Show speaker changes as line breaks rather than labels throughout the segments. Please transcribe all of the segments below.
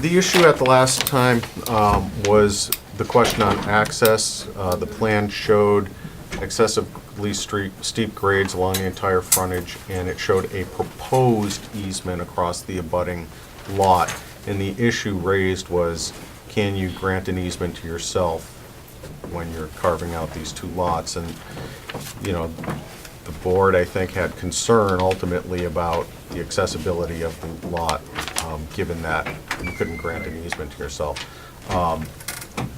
The issue at the last time um, was the question on access. Uh, The plan showed excessively stre- steep grades along the entire frontage, and it showed a proposed easement across the abutting lot. And the issue raised was, can you grant an easement to yourself when you're carving out these two lots? And, you know, the board, I think, had concern ultimately about the accessibility of the lot, um, given that you couldn't grant an easement to yourself. Um,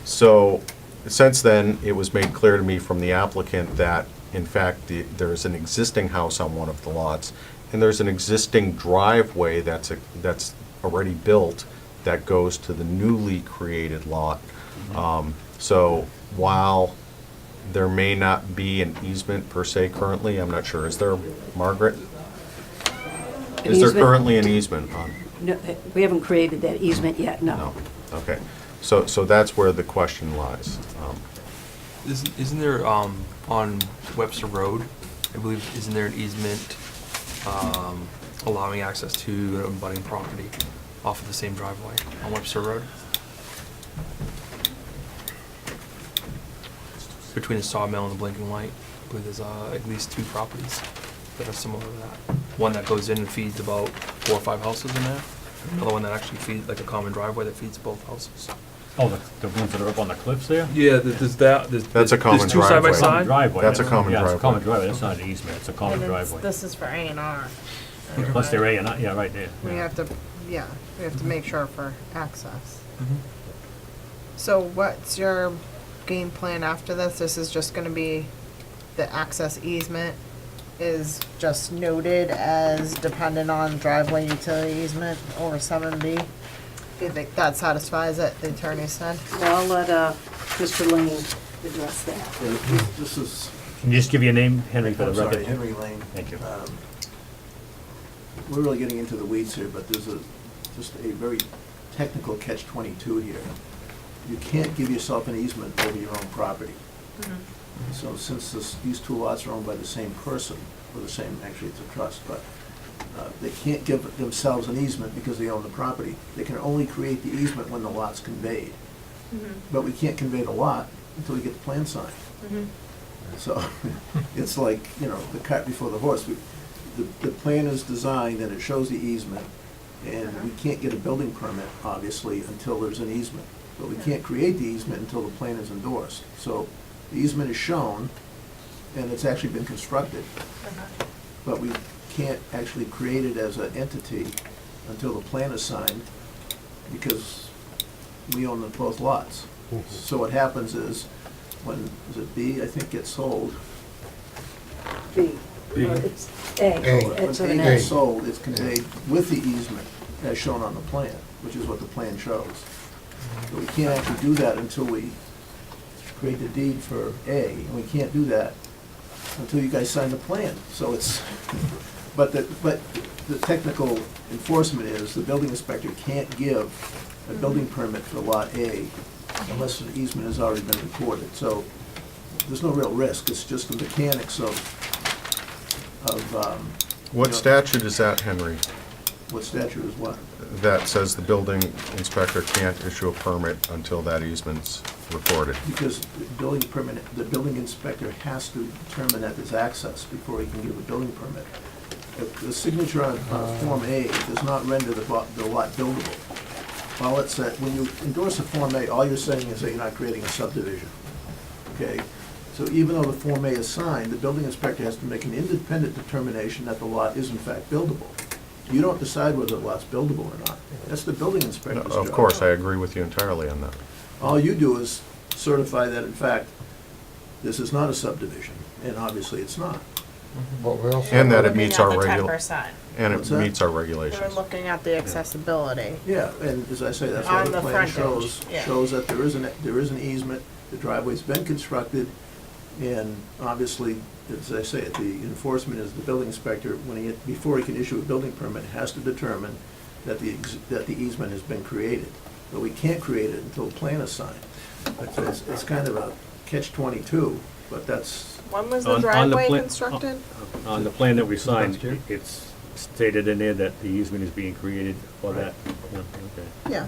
So, since then, it was made clear to me from the applicant that, in fact, the- there is an existing house on one of the lots, and there's an existing driveway that's, a- that's already built that goes to the newly created lot. Um, So, while there may not be an easement per se currently, I'm not sure, is there, Margaret?
An
Is there
easement?
currently an easement on,
No, uh, we haven't created that easement yet,
no,
no.
okay, so, so that's where the question lies. Um,
Isn't, isn't there, um, on Webster Road, I believe, isn't there an easement, um, allowing access to an abutting property off of the same driveway on Webster Road? Between the sawmill and the blinking light, I believe there's, uh, at least two properties that are similar to that. One that goes in and feeds about four or five houses in there, another one that actually feeds, like a common driveway that feeds both houses.
Oh, the, the ones that are up on the cliffs there?
Yeah, th- there's that, there's.
That's a
there's
common
two side by
driveway.
Common
side.
Driveway.
That's a
yeah.
common
Yeah, it's a common
driveway.
driveway, that's not an easement, it's a common
And it's-
driveway.
This is for A and R.
Plus they're A and I, yeah, right there.
We
yeah.
have to, yeah, we have to make sure for access.
Mhm.
So what's your game plan after this? This is just gonna be, the access easement is just noted as dependent on driveway utility easement over seven B? Do you think that satisfies it, the attorney said?
Well, I'll let uh, Mr. Lane address that.
Yeah, This this is,
Can you just give your name, Henry, for the
I'm sorry,
record?
Henry Lane.
Thank you.
Um, We're really getting into the weeds here, but there's a, just a very technical catch twenty-two here. You can't give yourself an easement over your own property.
Mm-hmm.
Mm-hmm.
So since this, these two lots are owned by the same person, or the same, actually it's a trust, but uh, they can't give themselves an easement because they own the property. They can only create the easement when the lot's conveyed.
Mm-hmm.
But we can't convey the lot until we get the plan signed.
Mm-hmm.
So it's like, you know, the cart before the horse. We- The, the plan is designed and it shows the easement, and we can't get a building permit, obviously, until there's an easement. But we can't create the easement until the plan is endorsed. So the easement is shown, and it's actually been constructed. But we can't actually create it as an entity until the plan is signed, because we own the both lots. So what happens is, when, is it B, I think, gets sold,
B. Well, It's A.
when
It's
A
an A.
gets sold, it's conveyed with the easement as shown on the plan, which is what the plan shows. But we can't actually do that until we create the deed for A, and we can't do that until you guys sign the plan. So it's, but the, but the technical enforcement is, the building inspector can't give a building permit for lot A unless an easement has already been recorded. So there's no real risk, it's just the mechanics of, of, um,
What statute is that, Henry,
what statute is what?
that says the building inspector can't issue a permit until that easement's recorded?
Because the building permit, the building inspector has to determine that there's access before he can give a building permit. If The signature on,
Uh.
on Form A does not render the bo- the lot buildable. All it said, when you endorse a Form A, all you're saying is that you're not creating a subdivision, okay? So even though the Form A is signed, the building inspector has to make an independent determination that the lot is in fact buildable. You don't decide whether the lot's buildable or not. That's the building
No,
inspector's job.
Of course, I agree with you entirely on that.
All you do is certify that, in fact, this is not a subdivision, and obviously it's not.
But we also.
And that it meets our
Ten
regul,
percent.
and
What's
it
that?
meets our
We're
regulations.
looking at the accessibility.
Yeah, and as I say, that's
On
what the
the
plan
frontage,
shows,
yeah.
shows that there is an, there is an easement, the driveway's been constructed, and obviously, as I say, the enforcement is the building inspector, when he, before he can issue a building permit, has to determine that the, ex- that the easement has been created. But we can't create it until the plan is signed. So It's, it's kind of a catch twenty-two, but that's,
When was
On-
the
on the
driveway
pla-
constructed?
On the plan that we signed, it's stated in there that the easement is being created for that?
Right.
Yeah, okay.
Yeah,